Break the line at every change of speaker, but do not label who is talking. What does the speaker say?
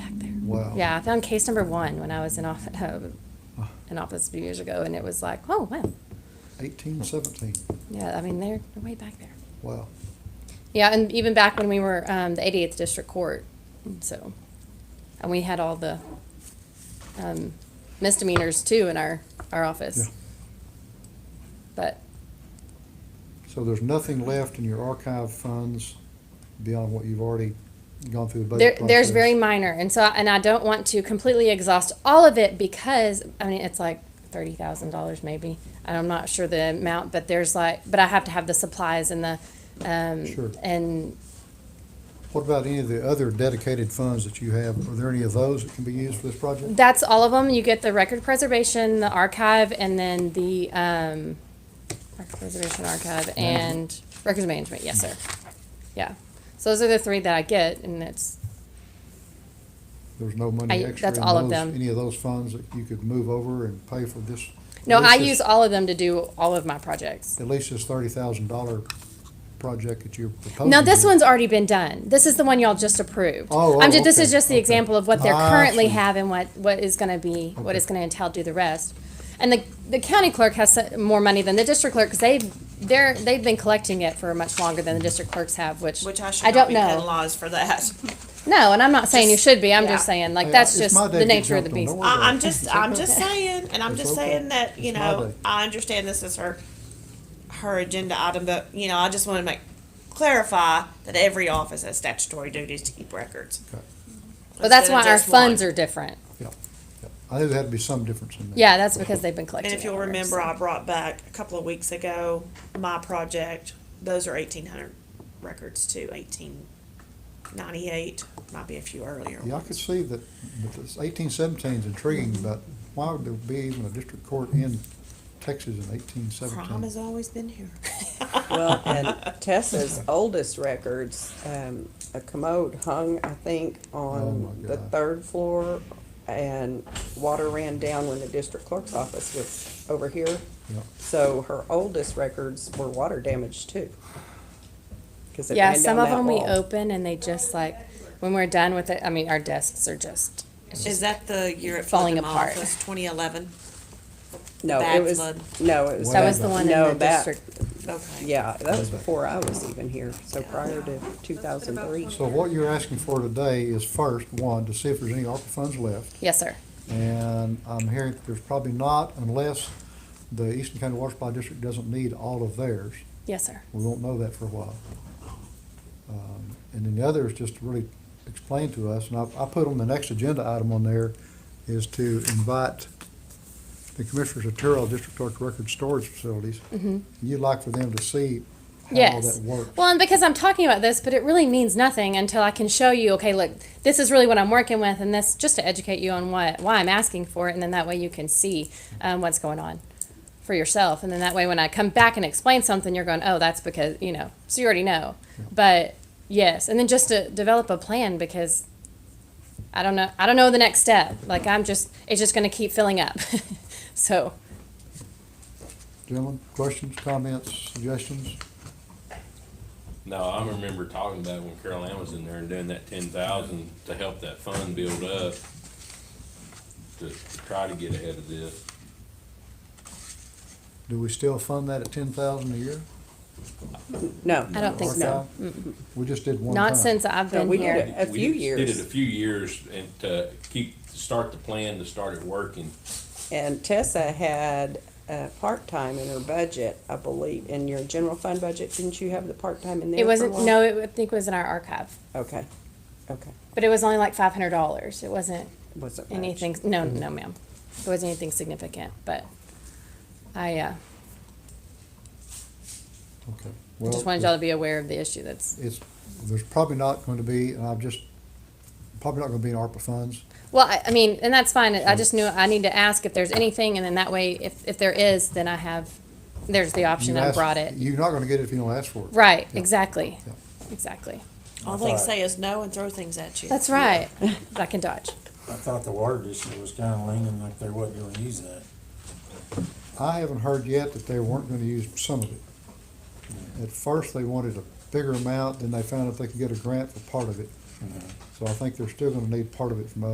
Wow.
Yeah, I found case number one when I was in office,
Oh.
in office a few years ago, and it was like, oh, wow.
Eighteen, seventeen,
Yeah, I mean, they're they're way back there.
wow.
Yeah, and even back when we were um, the 88th District Court, and so, and we had all the um, misdemeanors too in our, our
Yeah.
office. But,
So there's nothing left in your archive funds beyond what you've already gone through the
There,
budget process?
there's very minor, and so, and I don't want to completely exhaust all of it because, I mean, it's like thirty thousand dollars maybe. And I'm not sure the amount, but there's like, but I have to have the supplies and the,
Sure.
um, and
What about any of the other dedicated funds that you have? Are there any of those that can be used for this project?
that's all of them. You get the record preservation, the archive, and then the, um, record preservation archive and records management, yes, sir. Yeah. So those are the three that I get, and it's,
There's no money
I-
extra
that's
in
all of
those,
them.
any of those funds that you could move over and pay for this?
no,
at least
I
this-
use all of them to do all of my projects.
At least this thirty thousand dollar project that you're proposing.
No, this
here.
one's already been done. This is the one y'all just approved.
Oh,
I'm
oh,
ju- This is
okay,
just the
okay.
example of what they're
Ah, I
currently
see.
have and what, what is gonna be, what
Okay.
it's gonna entail, do the rest. And the, the county clerk has so- more money than the district clerk, because they've, they're, they've been collecting it for much longer than the district clerks have, which,
Which I
I
should not
don't
be cutting
know.
laws for that.
No, and I'm not saying you
Just-
should be, I'm
yeah.
just saying, like,
Hey,
that's
it's
just
my day
the
to get
nature of the
jumped on,
beast.
don't worry.
I, I'm just,
It's
I'm
okay.
just saying, and I'm
It's
just
okay.
saying that, you
It's my
know,
day.
I understand this is her, her agenda item, but, you know, I just wanna make, clarify that every office has statutory duties to keep records.
Okay.
But that's
Instead of
why our
just one.
funds are different.
Yeah, yeah. I think there'd be some difference in that.
Yeah, that's because they've been collecting
And
it.
if you'll
longer,
remember,
so.
I brought back a couple of weeks ago, my project, those are eighteen hundred records to eighteen ninety-eight, might be a few earlier.
Yeah, I could see that, but this eighteen seventeen is intriguing, but why would there be even a district court in Texas in eighteen
Crime has
seventeen?
always been here.
Well, and Tessa's oldest records, um, a commode hung, I think, on
my
the
God.
third floor, and water ran down when the district clerk's office was over here.
Yeah.
So her oldest records were water damaged too. 'Cause it
Yeah,
ran
some
down
of
that
them we
wall.
open and they just like, when we're done with it, I mean, our desks are just, it's
Is
just,
that the year it
Falling
flooded my
apart.
office, twenty eleven?
No,
bad
it was,
flood?
no, it was.
that was the
Wow.
one in
No,
the
that-
district.
Okay.
Yeah, that was before I was even here, so prior to two thousand three.
So what you're asking for today is first, one, to see if there's any ARPA funds left.
Yes, sir.
And I'm hearing that there's probably not unless the Eastern County Water Supply District doesn't need all of theirs.
Yes, sir.
We won't know that for a while. Um, And then the other is just to really explain to us, and I, I put on the next agenda item on there, is to invite the commissioners of Terrell District Clerk Record Storage Facilities. You'd like for them to see how all
Mm-hmm. Yes.
that works.
Well, and because I'm talking about this, but it really means nothing until I can show you, okay, look, this is really what I'm working with and this, just to educate you on what, why I'm asking for it. And then that way you can see, um, what's going on for yourself. And then that way, when I come back and explain something, you're going, oh, that's because, you know, so you already know. But yes, and then just to develop a plan because I don't know, I don't know the next step. Like I'm just, it's just going to keep filling up. so,
Gentlemen, questions, comments, suggestions?
No, I remember talking about it when Carol Ann was in there and doing that ten thousand to help that fund build up. To to try to get ahead of this.
Do we still fund that at ten thousand a year?
No.
I don't think so.
Archive? We just did one time.
not since I've
No,
been
we
here.
did A
We
few
Did
years.
it a few years and to keep, to start the plan to start it working.
And Tessa had uh part-time in her budget, I believe, in your general fund budget, didn't you have the part-time in there?
It
for
wasn't,
one?
no, it, I think it was in our archive,
Okay, okay,
but it was only like five hundred dollars. It wasn't
wasn't much.
anything, no, no, ma'am. It wasn't anything significant, but I, uh,
Okay.
just
Well,
wanted y'all to be aware of the issue that's,
It's, there's probably not going to be, and I've just, probably not going to be in ARPA funds.
well, I, I mean, and that's fine. I just knew, I need to ask if there's anything and then that way, if, if there is, then I have, there's the option
You
that I
ask-
brought it.
You're not gonna get it if you don't ask for it.
Right,
Yeah.
exactly,
Yeah.
exactly.
All they say is no and throw things at you.
That's right. I can dodge.
I thought the water district was kinda leaning like they wasn't gonna use that.
I haven't heard yet that they weren't gonna use some of it. At first, they wanted a bigger amount, then they found out they could get a grant for part of it. So I think they're still gonna need part of it from us.